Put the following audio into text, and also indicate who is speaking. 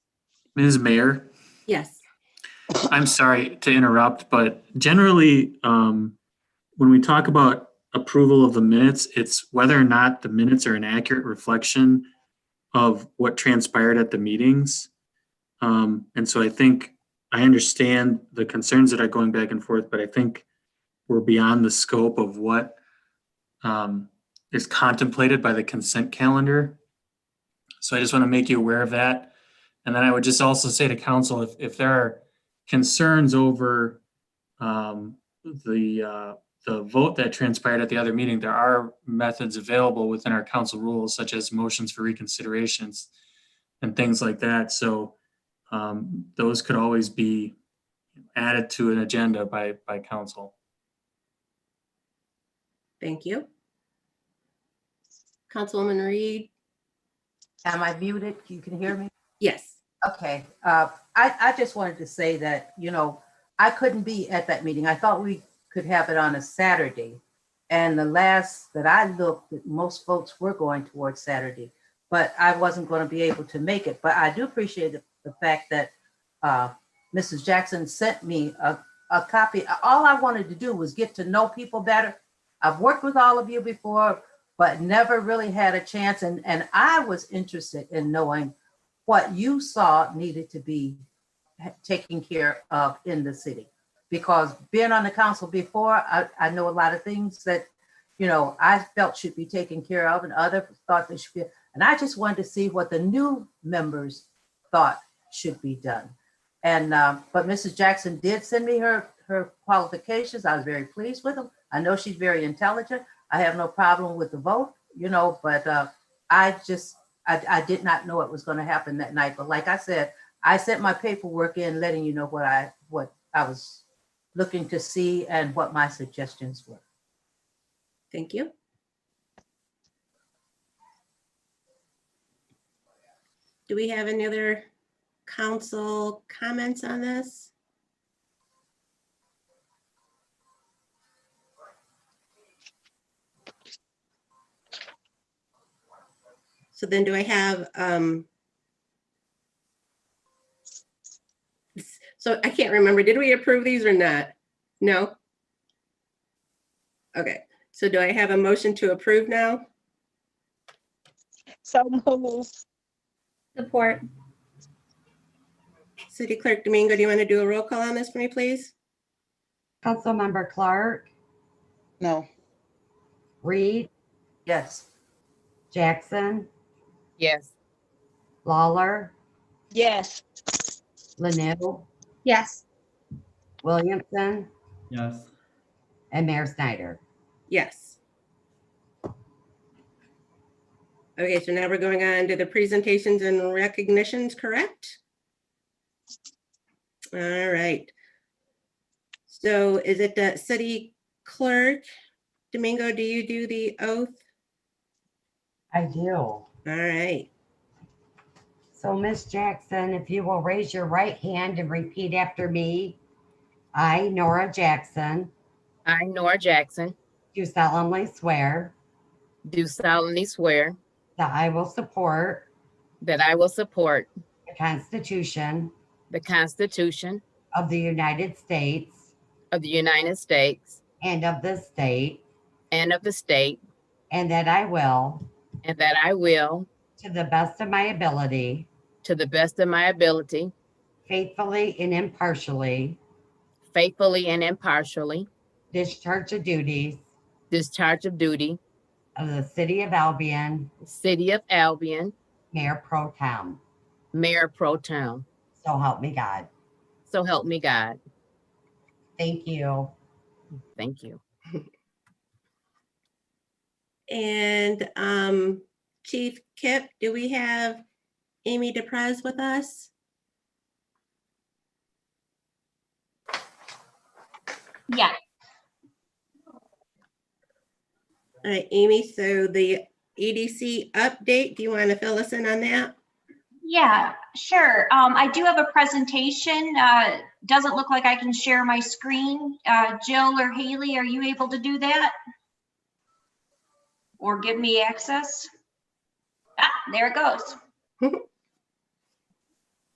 Speaker 1: Ms. Mayor,
Speaker 2: Yes.
Speaker 1: I'm sorry to interrupt, but generally, um, when we talk about approval of the minutes, it's whether or not the minutes are an accurate reflection of what transpired at the meetings. Um, and so I think I understand the concerns that are going back and forth, but I think we're beyond the scope of what um, is contemplated by the consent calendar. So I just want to make you aware of that. And then I would just also say to council, if, if there are concerns over um, the, uh, the vote that transpired at the other meeting, there are methods available within our council rules such as motions for reconsiderations and things like that. So um, those could always be added to an agenda by, by council.
Speaker 2: Thank you. Councilwoman Reed?
Speaker 3: Am I muted? You can hear me?
Speaker 2: Yes.
Speaker 3: Okay, uh, I, I just wanted to say that, you know, I couldn't be at that meeting. I thought we could have it on a Saturday. And the last that I looked, most votes were going towards Saturday, but I wasn't going to be able to make it. But I do appreciate the, the fact that, uh, Mrs. Jackson sent me a, a copy. All I wanted to do was get to know people better. I've worked with all of you before, but never really had a chance. And, and I was interested in knowing what you saw needed to be ha- taken care of in the city. Because being on the council before, I, I know a lot of things that, you know, I felt should be taken care of and other thought they should be. And I just wanted to see what the new members thought should be done. And, um, but Mrs. Jackson did send me her, her qualifications. I was very pleased with them. I know she's very intelligent. I have no problem with the vote, you know, but, uh, I just I, I did not know it was going to happen that night. But like I said, I sent my paperwork in, letting you know what I what I was looking to see and what my suggestions were.
Speaker 2: Thank you. Do we have any other council comments on this? So then do I have, um, so I can't remember, did we approve these or not? No? Okay. So do I have a motion to approve now?
Speaker 4: So moved.
Speaker 5: Support,
Speaker 2: City Clerk Domingo, do you want to do a roll call on this for me, please?
Speaker 6: Councilmember Clark,
Speaker 7: No.
Speaker 6: Reed,
Speaker 3: Yes,
Speaker 6: Jackson,
Speaker 8: Yes.
Speaker 6: Lawler,
Speaker 4: Yes.
Speaker 6: Lanu,
Speaker 5: yes,
Speaker 6: Williamson,
Speaker 9: Yes.
Speaker 6: and Mayor Snyder.
Speaker 2: Yes. Okay, so now we're going on to the presentations and recognitions, correct? All right. So is it the city clerk? Domingo, do you do the oath?
Speaker 6: I do.
Speaker 2: All right.
Speaker 6: So Miss Jackson, if you will raise your right hand and repeat after me. I, Nora Jackson,
Speaker 8: I, Nora Jackson,
Speaker 6: do solemnly swear
Speaker 8: do solemnly swear
Speaker 6: that I will support
Speaker 8: that I will support
Speaker 6: the Constitution
Speaker 8: the Constitution
Speaker 6: of the United States
Speaker 8: of the United States
Speaker 6: and of this state,
Speaker 8: and of the state,
Speaker 6: and that I will,
Speaker 8: and that I will,
Speaker 6: to the best of my ability,
Speaker 8: to the best of my ability,
Speaker 6: faithfully and impartially,
Speaker 8: faithfully and impartially,
Speaker 6: discharge the duties
Speaker 8: discharge of duty,
Speaker 6: of the City of Albion
Speaker 8: City of Albion,
Speaker 6: Mayor Pro Tem.
Speaker 8: Mayor Pro Town.
Speaker 6: So help me God.
Speaker 8: So help me God.
Speaker 6: Thank you.
Speaker 8: Thank you.
Speaker 2: And um, Chief Kip, do we have Amy DePrez with us?
Speaker 5: yes.
Speaker 2: All right, Amy, so the EDC update, do you want to fill us in on that?
Speaker 5: Yeah, sure. Um, I do have a presentation. Uh, doesn't look like I can share my screen. Uh, Jill or Haley, are you able to do that? Or give me access? Ah, there it goes.